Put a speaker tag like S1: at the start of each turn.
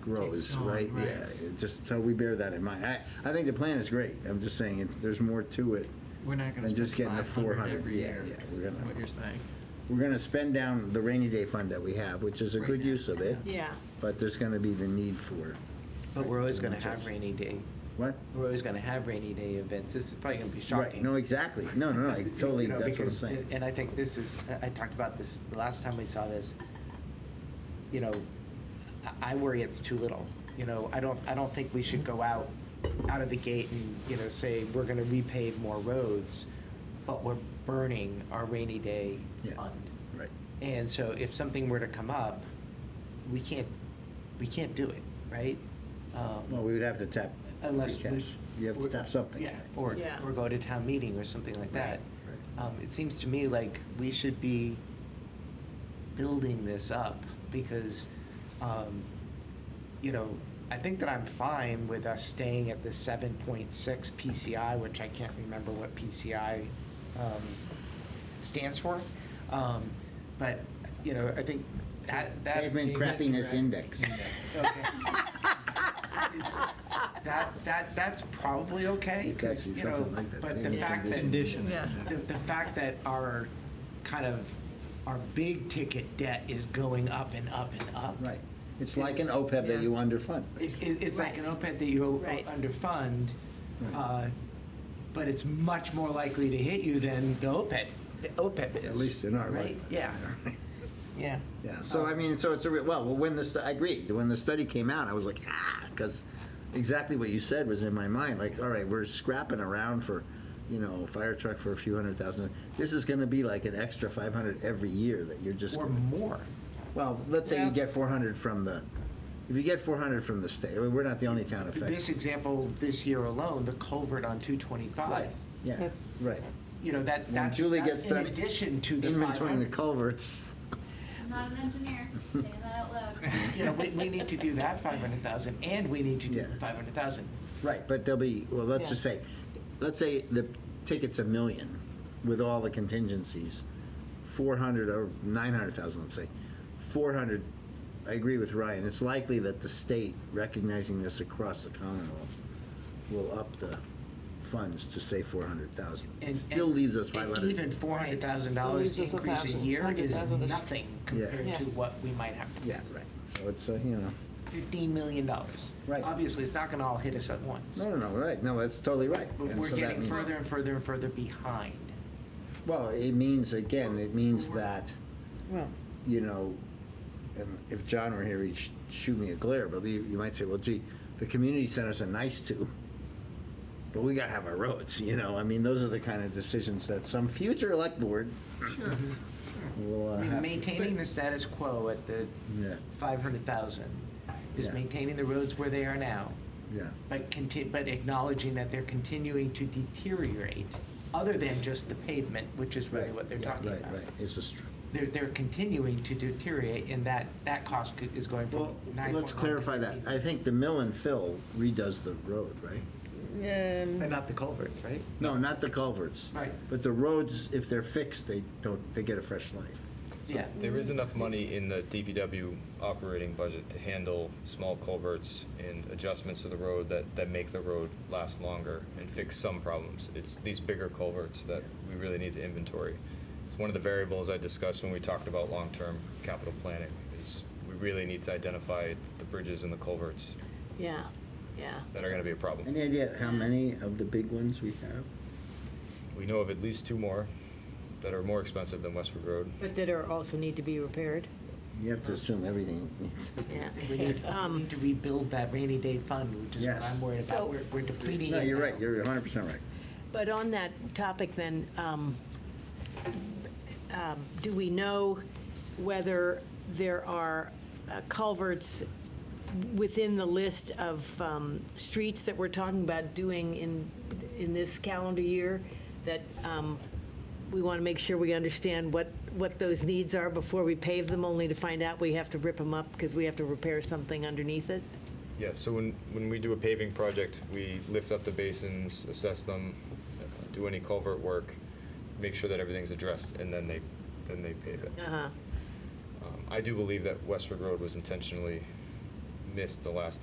S1: grows,
S2: Takes on,
S1: right?
S2: right.
S1: Yeah, it just, so we bear that in mind. I, I think the plan is great. I'm just saying, if there's more to it.
S2: We're not gonna
S1: And just
S2: spend
S1: getting the
S2: five
S1: 400,
S2: hundred every
S1: yeah,
S2: year,
S1: yeah, we're
S2: is
S1: gonna-
S2: what you're saying.
S1: We're gonna spend down the rainy day fund that we have, which is a
S2: Right
S1: good
S2: now,
S1: use of it,
S3: Yeah,
S1: but there's gonna be the need for,
S4: But we're always gonna have rainy day,
S1: what?
S4: we're always gonna have rainy day events, this is probably gonna be
S1: Right,
S4: shocking.
S1: no, exactly. No, no, no, I
S4: You
S1: totally,
S4: know,
S1: that's what I'm
S4: because-
S1: saying.
S4: And I think this is, I- I talked about this the last time we saw this, you know, I- I worry it's too little. You know, I don't, I don't think we should go out, out of the gate and, you know, say, we're gonna repave more roads, but we're burning our rainy day
S1: Yeah.
S4: fund.
S1: Right,
S4: And so if something were to come up, we can't, we can't do it, right? Um,
S1: well, we would have to tap
S4: Unless
S1: free cash.
S4: we-
S1: You have to tap something.
S4: Yeah, or,
S3: Yeah.
S4: or go to town meeting or something like that.
S1: Right.
S4: Um, It seems to me like we should be building this up because, um, you know, I think that I'm fine with us staying at the seven point six PCI, which I can't remember what PCI um, stands for. Um, But, you know, I think that, that.
S1: Pavement crappiness index.
S4: Okay. That, that, that's probably okay,
S1: It's
S4: 'cause,
S1: actually
S4: you know,
S1: something like that.
S4: but
S1: Maybe
S4: the
S1: a
S4: fact that, the,
S2: Condition.
S3: Yeah.
S4: the fact that our kind of, our big ticket debt is going up and up and up.
S1: Right. It's like an
S4: It's-
S1: OPEB that
S3: yeah.
S1: you underfund.
S4: It, it- it's like an OPEB that you o-
S3: Right.
S4: underfund,
S1: Right.
S4: uh, but it's much more likely to hit you than the OPEB, the OPEB is.
S1: At least in our
S4: right?
S1: lifetime.
S4: Yeah, yeah.
S1: Yeah, so I mean, so it's a, real well, when the, stu- I agree, when the study came out, I was like, ah, because exactly what you said was in my mind, like, all right, we're scrapping around for, you know, fire truck for a few hundred thousand. This is gonna be like an extra five hundred every year that you're just,
S4: Or
S1: gonna-
S4: more.
S1: well, let's say you
S4: Well-
S1: get four hundred from the, if you get four hundred from the state, I mean, we're not the only town
S4: This
S1: affected.
S4: example, this year alone, the culvert on two
S1: Right,
S4: twenty-five,
S1: yeah,
S2: That's-
S1: right.
S4: you know, that,
S1: When
S4: that's,
S1: Julie
S4: that's
S1: gets
S4: in
S1: done
S4: addition to the
S1: Inventorying the
S4: 500.
S1: culverts,
S5: I'm not an engineer, say that out loud.
S4: You know, we, we need to do that five hundred thousand, and we need to do
S1: Yeah.
S4: the five hundred thousand.
S1: right, but there'll be, well, let's just say, let's say the ticket's a million with all the contingencies, 400 or 900,000, let's say. 400, I agree with Ryan, it's likely that the state, recognizing this across the Commonwealth, will up the funds to say 400,000. It
S4: And-
S1: still
S4: and-
S1: leaves us
S4: and
S1: 500.
S4: Even four hundred thousand
S2: Still
S4: dollars
S2: leaves us a
S4: increase a
S2: thousand-
S4: year
S2: hundred
S4: is
S2: thousand-ish.
S4: nothing compared
S2: Yeah.
S4: to what we might have. to
S1: Yeah,
S4: pay.
S1: right. So it's, uh, you know,
S4: Fifteen million dollars.
S1: Right.
S4: Obviously, it's not gonna all hit us at once.
S1: no, no, no, right, no, that's totally right.
S4: But
S1: And
S4: we're
S1: so that
S4: getting
S1: means-
S4: further and further and further behind.
S1: Well, it means, again, it means that,
S2: Well,
S1: you know, and if John were here, he'd sh- shoot me a glare, but you, you might say, well, gee, the community centers are nice too, but we gotta have our roads, you know, I mean, those are the kind of decisions that some future elect board will
S4: I
S1: uh,
S4: mean,
S1: have. to-
S4: Maintaining the status quo at the
S1: Yeah,
S4: five hundred thousand is
S1: Yeah.
S4: maintaining the roads where they are now.
S1: yeah,
S4: but conti- but acknowledging that they're continuing to deteriorate, other than just the pavement, which is really
S1: right.
S4: what they're
S1: yeah,
S4: talking
S1: Right,
S4: about.
S1: right, it's a str-
S4: They're, they're continuing to deteriorate, and that, that cost co- is going from
S1: Well,
S4: nine.
S1: let's clarify that, I think the mill and fill redoes the road, right?
S4: But
S2: um,
S4: not the culverts, right?
S1: No, not the culverts.
S4: Right.
S1: But the roads, if they're fixed, they don't, they get a fresh life.
S4: Yeah,
S6: There is enough money in the DPW operating budget to handle small culverts and adjustments to the road that, that make the road last longer and fix some problems. It's these bigger culverts that we really need to inventory. It's one of the variables I discussed when we talked about long-term capital planning, is we really need to identify the bridges and the culverts
S3: yeah, yeah.
S6: that are gonna be a problem.
S1: Any idea how many of the big ones we have?
S6: We know of at least two more that are more expensive than Westford Road.
S3: But that are also need to be repaired,
S1: You have to assume everything needs.
S3: yeah.
S4: we need, we
S3: Um,
S4: need to rebuild that rainy day fund, which is what
S1: Yes.
S4: I'm worried
S3: So-
S4: about, we're, we're depleting it.
S1: No, you're
S4: now.
S1: right, you're hundred percent right.
S3: But on that topic then, um, um, do we know whether there are uh, culverts within the list of um, streets that we're talking about doing in, in this calendar year? That um, we want to make sure we understand what, what those needs are before we pave them, only to find out we have to rip them up because we have to repair something underneath it?
S6: Yeah, so when, when we do a paving project, we lift up the basins, assess them, uh, do any culvert work, make sure that everything's addressed, and then they, then they pave it.
S3: Uh-huh.
S6: Um, I do believe that Westford Road was intentionally this the last